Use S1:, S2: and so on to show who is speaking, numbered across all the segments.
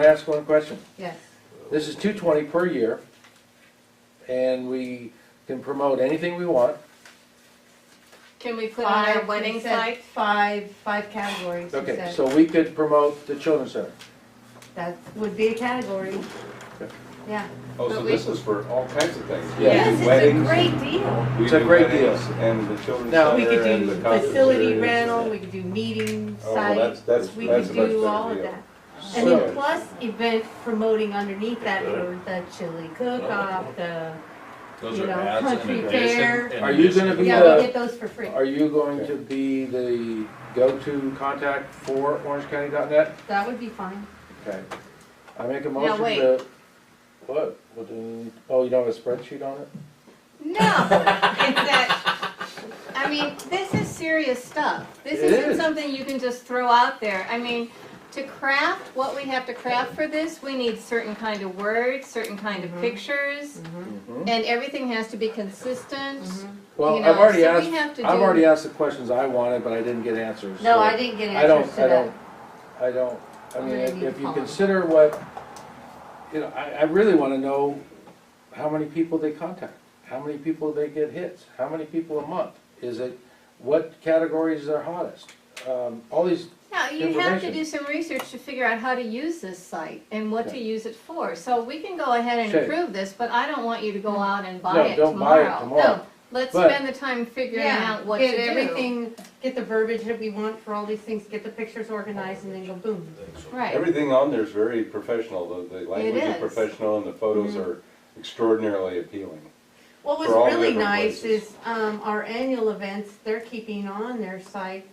S1: Can I ask one question?
S2: Yes,
S1: This is two twenty per year, and we can promote anything we want.
S3: Can we put on our
S2: five,
S3: wedding
S2: he said,
S3: site?
S2: five, five categories, he
S1: Okay,
S2: said.
S1: so we could promote the children's center.
S2: That would be a category. Yeah.
S4: Oh,
S3: But
S4: so
S3: we-
S4: this is for all kinds of things. We
S1: Yeah.
S4: do
S2: Yes, it's a
S4: weddings,
S2: great deal.
S4: we
S1: It's a
S4: do
S1: great
S4: weddings, And the children's
S1: Now-
S2: We
S4: center
S2: could
S4: and
S2: do
S4: the conference
S2: facility
S4: areas.
S2: rental, we could do meeting
S4: Oh, well, that's,
S2: sites,
S4: that's,
S2: we
S4: that's
S2: could
S4: a much
S2: do all
S4: better
S2: of
S4: deal.
S2: that. And
S1: So-
S2: then plus event promoting underneath that, or the chili cook-off, the,
S5: Those
S2: You
S5: are
S2: know,
S5: ads and
S2: country fair.
S5: adjacent. and
S1: Are you gonna
S5: adjacent-
S1: be
S2: yeah,
S1: uh,
S2: we get those for free.
S1: Are you going to be the go-to contact for orangecounty.net?
S2: That would be fine.
S1: Okay. I make a motion
S3: wait.
S1: to, what? What do you need? Oh, you don't have a spreadsheet on it?
S3: No, it's that, I mean, this is serious stuff. This
S1: It
S3: isn't
S1: is.
S3: something you can just throw out there. I mean, to craft what we have to craft for this, we need certain kind of words, certain kind of pictures,
S1: Mhm.
S3: and everything has to be consistent.
S1: Well,
S3: You
S1: I've
S3: know,
S1: already
S3: so
S1: asked,
S3: we have to
S1: I've
S3: do-
S1: already asked the questions I wanted, but I didn't get answers.
S2: No,
S1: so-
S2: I didn't get
S1: I don't-
S2: answers to
S1: I don't-
S2: that.
S1: I don't, I
S2: I'm
S1: mean,
S2: gonna
S1: if
S2: need
S1: if
S2: to
S1: you
S2: call him.
S1: consider what, you know, I, I really wanna know how many people they contact, how many people they get hits, how many people a month, is it, what categories are hottest? Um, all these,
S3: Now, you have to
S1: Information.
S3: do some research to figure out how to use this site and what to
S1: Yeah.
S3: use it for. So we can go ahead and
S1: Okay.
S3: approve this, but I don't want you to go out and buy
S1: No,
S3: it tomorrow.
S1: don't buy it tomorrow.
S3: No, Let's
S1: But-
S3: spend the time figuring
S2: Yeah,
S3: out what to do.
S2: get everything, get the verbiage that we want for all these things, get the pictures organized, and then go boom.
S3: Right.
S4: Everything on there is very professional, the, the language is
S3: is.
S4: professional and the photos are extraordinarily appealing.
S2: What was
S4: For all
S2: really
S4: different
S2: nice
S4: places.
S2: is, um, our annual events, they're keeping on their site.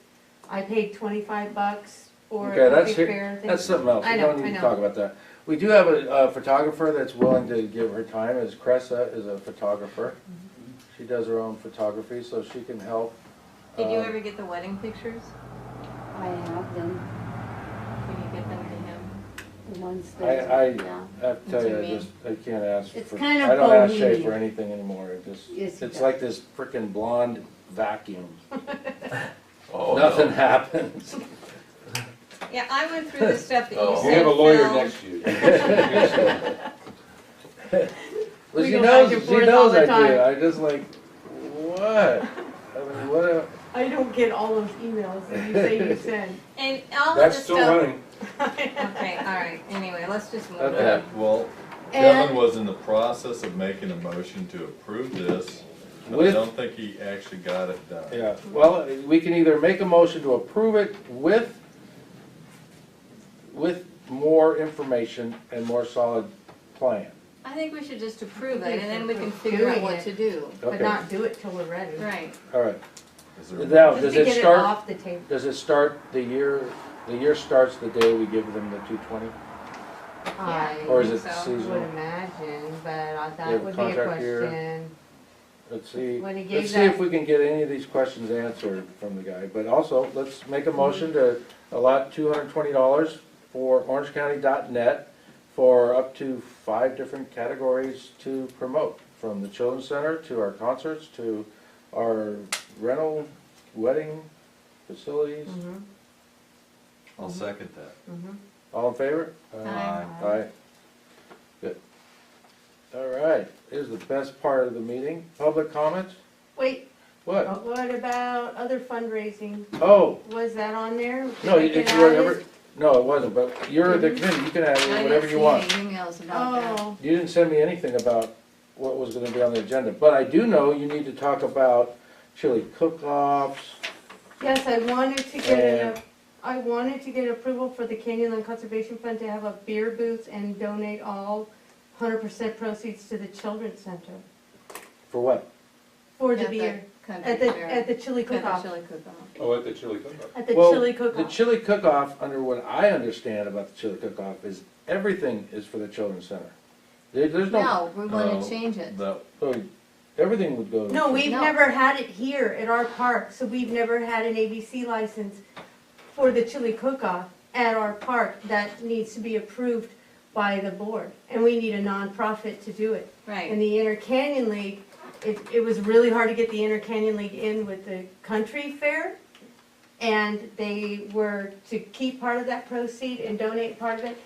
S2: I paid twenty-five bucks for
S1: Okay,
S2: the
S1: that's
S2: big
S1: here-
S2: fair thing.
S1: that's something else,
S2: I
S1: we
S2: know,
S1: don't
S2: I
S1: need to
S2: know.
S1: talk about that. We do have a, uh photographer that's willing to give her time, is Cressa is a photographer.
S2: Mm-hmm.
S1: She does her own photography, so she can help.
S3: Did you
S1: um,
S3: ever get the wedding pictures?
S6: I have them,
S3: Can you get them to him?
S6: the ones
S1: I,
S6: that.
S1: I,
S3: Yeah.
S1: I have to tell
S3: Do
S1: you, I
S3: me.
S1: just, I can't ask
S6: It's
S1: for,
S6: kind of
S1: I don't ask Shay
S6: bohemian.
S1: for anything anymore, it just,
S6: Yes, he
S1: it's
S6: does.
S1: like this frickin' blonde vacuum.
S5: Oh,
S1: Nothing
S5: no.
S1: happens.
S3: Yeah, I went through the stuff that you
S5: Oh.
S3: sent.
S4: We have a lawyer
S3: Phil.
S4: next to you.
S1: Well,
S2: We
S1: she
S2: go back
S1: knows,
S2: and
S1: she
S2: forth all
S1: knows
S2: the
S1: I do,
S2: time.
S1: I just like, what? I mean, what, a-
S2: I don't get all those emails that you say you send.
S3: And all of the
S4: That's still
S3: stuff.
S4: running.
S3: Okay, all right, anyway, let's just move
S1: Okay.
S3: on.
S5: Well, Kevin
S2: And,
S5: was in the process of making a motion to approve this, but I
S1: With-
S5: don't think he actually got it done.
S1: yeah, well, we can either make a motion to approve it with, with more information and more solid plan.
S3: I think we should just approve
S2: I
S3: it
S2: think
S3: and then we
S2: we're
S3: can figure out
S2: doing
S3: what
S2: it.
S3: to do.
S2: but
S1: Okay,
S2: not do it till we're ready.
S3: Right.
S1: all right,
S5: Is there a
S1: That-
S2: Just
S5: motion?
S1: Does
S2: to
S1: it
S2: get it
S1: start-
S2: off the table.
S1: does it start the year, the year starts the day we give them the two twenty? Or
S2: I
S1: is it
S3: think so.
S2: would
S1: seasonal?
S2: imagine, but I-
S1: You have
S2: that
S1: a
S2: would be a
S1: contract here.
S2: question.
S1: Let's see,
S2: When he
S1: let's
S2: gave
S1: see if
S2: that-
S1: we can get any of these questions answered from the guy, but also, let's make a motion to allot two hundred and twenty dollars for orangecounty.net for up to five different categories to promote, from the children's center to our concerts to our rental, wedding facilities.
S2: Mhm,
S5: I'll second that.
S2: mhm.
S1: All in favor?
S3: uh, Aye.
S1: Aye. Good. All right, here's the best part of the meeting, public comments?
S2: Wait,
S1: What?
S2: what about other fundraising?
S1: Oh,
S2: Was that on there?
S1: No,
S2: Did I
S1: it's
S2: get out of
S1: whatever,
S2: this?
S1: no, it wasn't, but you're the committee, you can add
S3: I
S1: in
S3: didn't
S1: whatever you
S3: see
S1: want.
S3: any Emails about that.
S2: Oh,
S1: You didn't send me anything about what was gonna be on the agenda, but I do know you need to talk about chili cook-offs.
S2: yes, I wanted to get
S1: Yeah.
S2: an, I wanted to get approval for the Canyonland Conservation Fund to have a beer booth and donate all hundred percent proceeds to the children's center
S1: For what?
S2: for the
S3: At the
S2: beer,
S3: country
S2: at the,
S3: fair.
S2: at the chili
S3: At the
S2: cook-off,
S3: chili cook-off.
S4: Oh, at the chili cook-off.
S2: at the
S1: Well,
S2: chili
S1: The
S2: cook-off.
S1: chili cook-off, under what I understand about the chili cook-off, is everything is for the children's center. There, there's no,
S3: No, we want
S5: No.
S3: to change it.
S5: That,
S1: oh, everything would go. to-
S2: No, we've
S3: No.
S2: never had it here at our park, so we've never had an ABC license for the chili cook-off at our park. That needs to be approved by the board, and we need a nonprofit to do it. And
S3: Right.
S2: the Inter Canyon League, it, it was really hard to get the Inter Canyon League in with the country fair. And they were to keep part of that proceed and donate part of it,